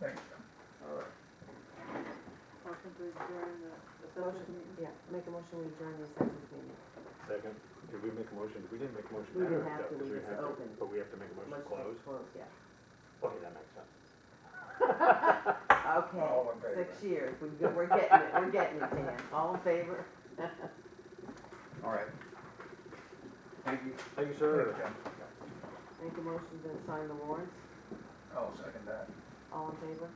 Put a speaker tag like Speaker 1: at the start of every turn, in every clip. Speaker 1: Thanks.
Speaker 2: All right.
Speaker 3: Motion to adjourn the, the social
Speaker 4: Motion,
Speaker 3: meeting.
Speaker 4: yeah, make a motion, we adjourn the executive meeting.
Speaker 5: Second, did we make a motion? We didn't make a motion.
Speaker 4: We
Speaker 5: to
Speaker 4: didn't have
Speaker 5: adjourn,
Speaker 4: to,
Speaker 5: no, 'cause
Speaker 4: we
Speaker 5: we
Speaker 4: just
Speaker 5: have to-
Speaker 4: opened.
Speaker 5: But we have to make a motion to
Speaker 4: Motion
Speaker 5: close?
Speaker 4: Close, yeah.
Speaker 5: Okay, that makes sense.
Speaker 1: All in
Speaker 4: Okay,
Speaker 1: favor?
Speaker 4: six years, we've been, we're getting it, we're getting it, Dan. All in favor?
Speaker 1: All right. Thank you.
Speaker 5: Thank you,
Speaker 1: Thanks,
Speaker 5: sir.
Speaker 1: Jen.
Speaker 4: Make a motion to sign the warrants.
Speaker 1: I'll Oh, second that.
Speaker 4: All in favor?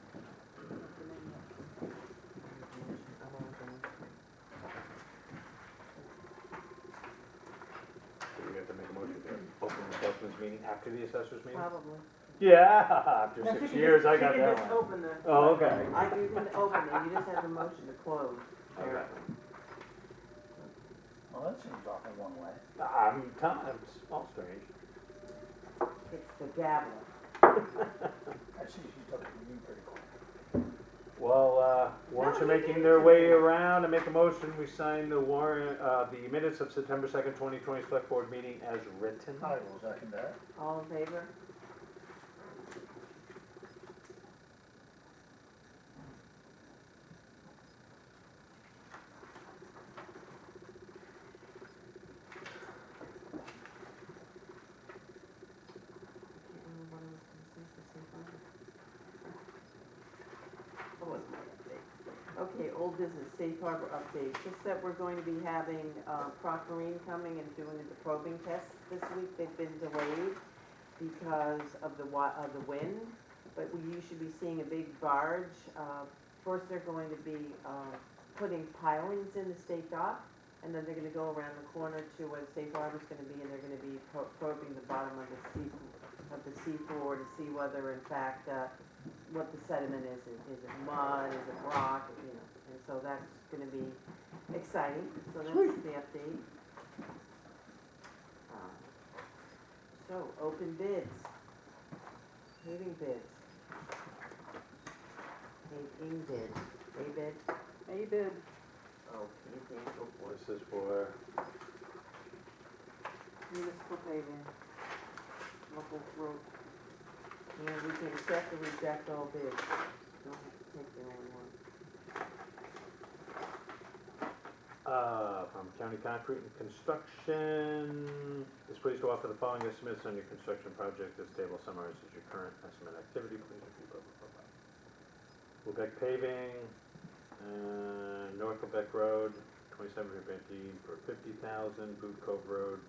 Speaker 5: Do we have to make a motion to open the selectmen's meeting after the assessors meeting?
Speaker 4: Probably.
Speaker 5: Yeah, after
Speaker 3: Now, she
Speaker 5: six
Speaker 3: can
Speaker 5: years,
Speaker 3: just-
Speaker 5: I got
Speaker 3: She can
Speaker 5: that
Speaker 3: just
Speaker 5: one.
Speaker 3: open the.
Speaker 5: Oh, okay.
Speaker 4: I do the opening, you just have a motion to close.
Speaker 5: Okay.
Speaker 1: Well, that seems off in one way.
Speaker 5: I'm, t- I'm all strange.
Speaker 4: It's the gavel.
Speaker 1: I see she took it from you pretty quick.
Speaker 5: Well, uh, warrants are making their way around. I make a motion, we sign the warrant, uh, the minutes of September second, twenty twenty, select board meeting as written.
Speaker 4: Oh.
Speaker 1: I will second that.
Speaker 4: All in favor? That was my update. Okay, old business, safe harbor update, just that we're going to be having uh, Proctorine coming and doing the probing tests this week, they've been delayed because of the wa, of the wind, but we- you should be seeing a big barge. Uh, First, they're going to be uh, putting pilings in the state dock, and then they're gonna go around the corner to where the safe harbor's gonna be, and they're gonna be pro- probing the bottom of the sea, of the seafloor to see whether in fact, uh, what the sediment is, is is it mud, is it rock, you know, and so that's gonna be exciting, so that's the update. Um, So, open bids, paving bids. Paving bid, A bid, Oh,
Speaker 3: A bid,
Speaker 4: okay, Dan, go for it.
Speaker 5: This is for,
Speaker 3: municipal paving, local road.
Speaker 4: And we can accept or reject all bids, don't take the only one.
Speaker 5: Uh, from County Concrete and Construction, is pleased to offer the following estimates on your construction project. This table summarizes your current estimate activity, please review blah, blah, blah, blah. Quebec paving, uh, North Quebec Road, twenty-seven hundred fifty for fifty thousand, Boot Cove Road,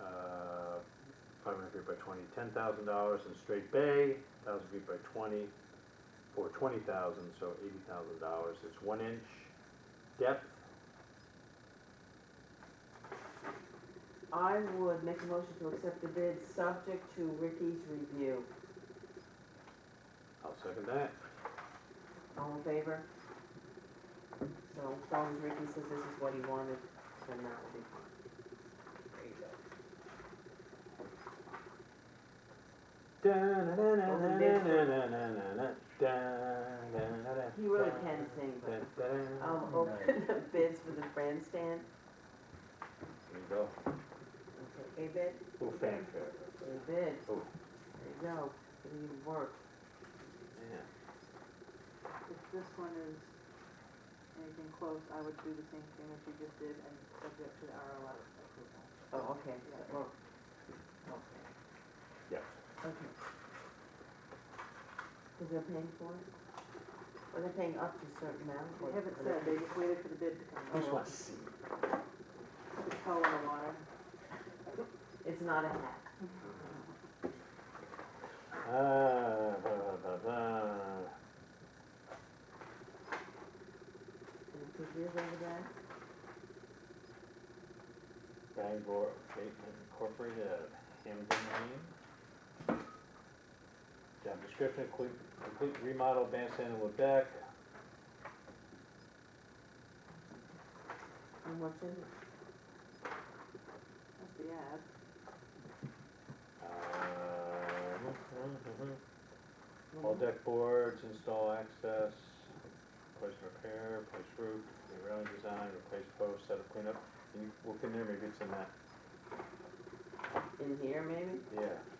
Speaker 5: uh, five hundred feet by twenty, ten thousand dollars, and Straight Bay, thousand feet by twenty, for twenty thousand, so eighty thousand dollars. It's one inch depth.
Speaker 4: I would make a motion to accept the bid, subject to Ricky's review,
Speaker 5: I'll second that.
Speaker 4: all in favor? So, as long as Ricky says this is what he wanted, then that will be fine. There you go. He
Speaker 5: He
Speaker 4: really can sing, but,
Speaker 5: There
Speaker 4: um, open the bids for the grandstand,
Speaker 5: you go.
Speaker 4: okay, a bid,
Speaker 5: Little fanfare.
Speaker 4: a bid, there
Speaker 5: Oh,
Speaker 4: you go, didn't even work.
Speaker 5: man.
Speaker 3: If this one is anything close, I would do the same thing as you just did and subject to the RLF approval.
Speaker 4: Oh, okay, that worked. Okay.
Speaker 5: Yes.
Speaker 4: Okay. Cause they're paying for it? Or they're paying up to a certain amount?
Speaker 3: They
Speaker 4: or-
Speaker 3: haven't
Speaker 4: or
Speaker 3: said,
Speaker 4: they're-
Speaker 3: they just waited for the bid to come.
Speaker 5: Just want to see.
Speaker 3: It's hell in the water.
Speaker 4: It's not a hack.
Speaker 5: Ah, blah, blah, blah,
Speaker 4: Can you take yours over there?
Speaker 5: blah. Bangor Bateman Incorporated, Hamden, Maine. Job description, complete, complete remodel bandstand in Lubec.
Speaker 4: How much is it?
Speaker 3: That's the ad.
Speaker 5: Um,
Speaker 4: One
Speaker 5: All
Speaker 4: more?
Speaker 5: deck boards, install access, replace repair, replace roof, railing design, replace post, set up cleanup. Can you look in there, maybe it's in that,
Speaker 4: In here, maybe?
Speaker 5: yeah.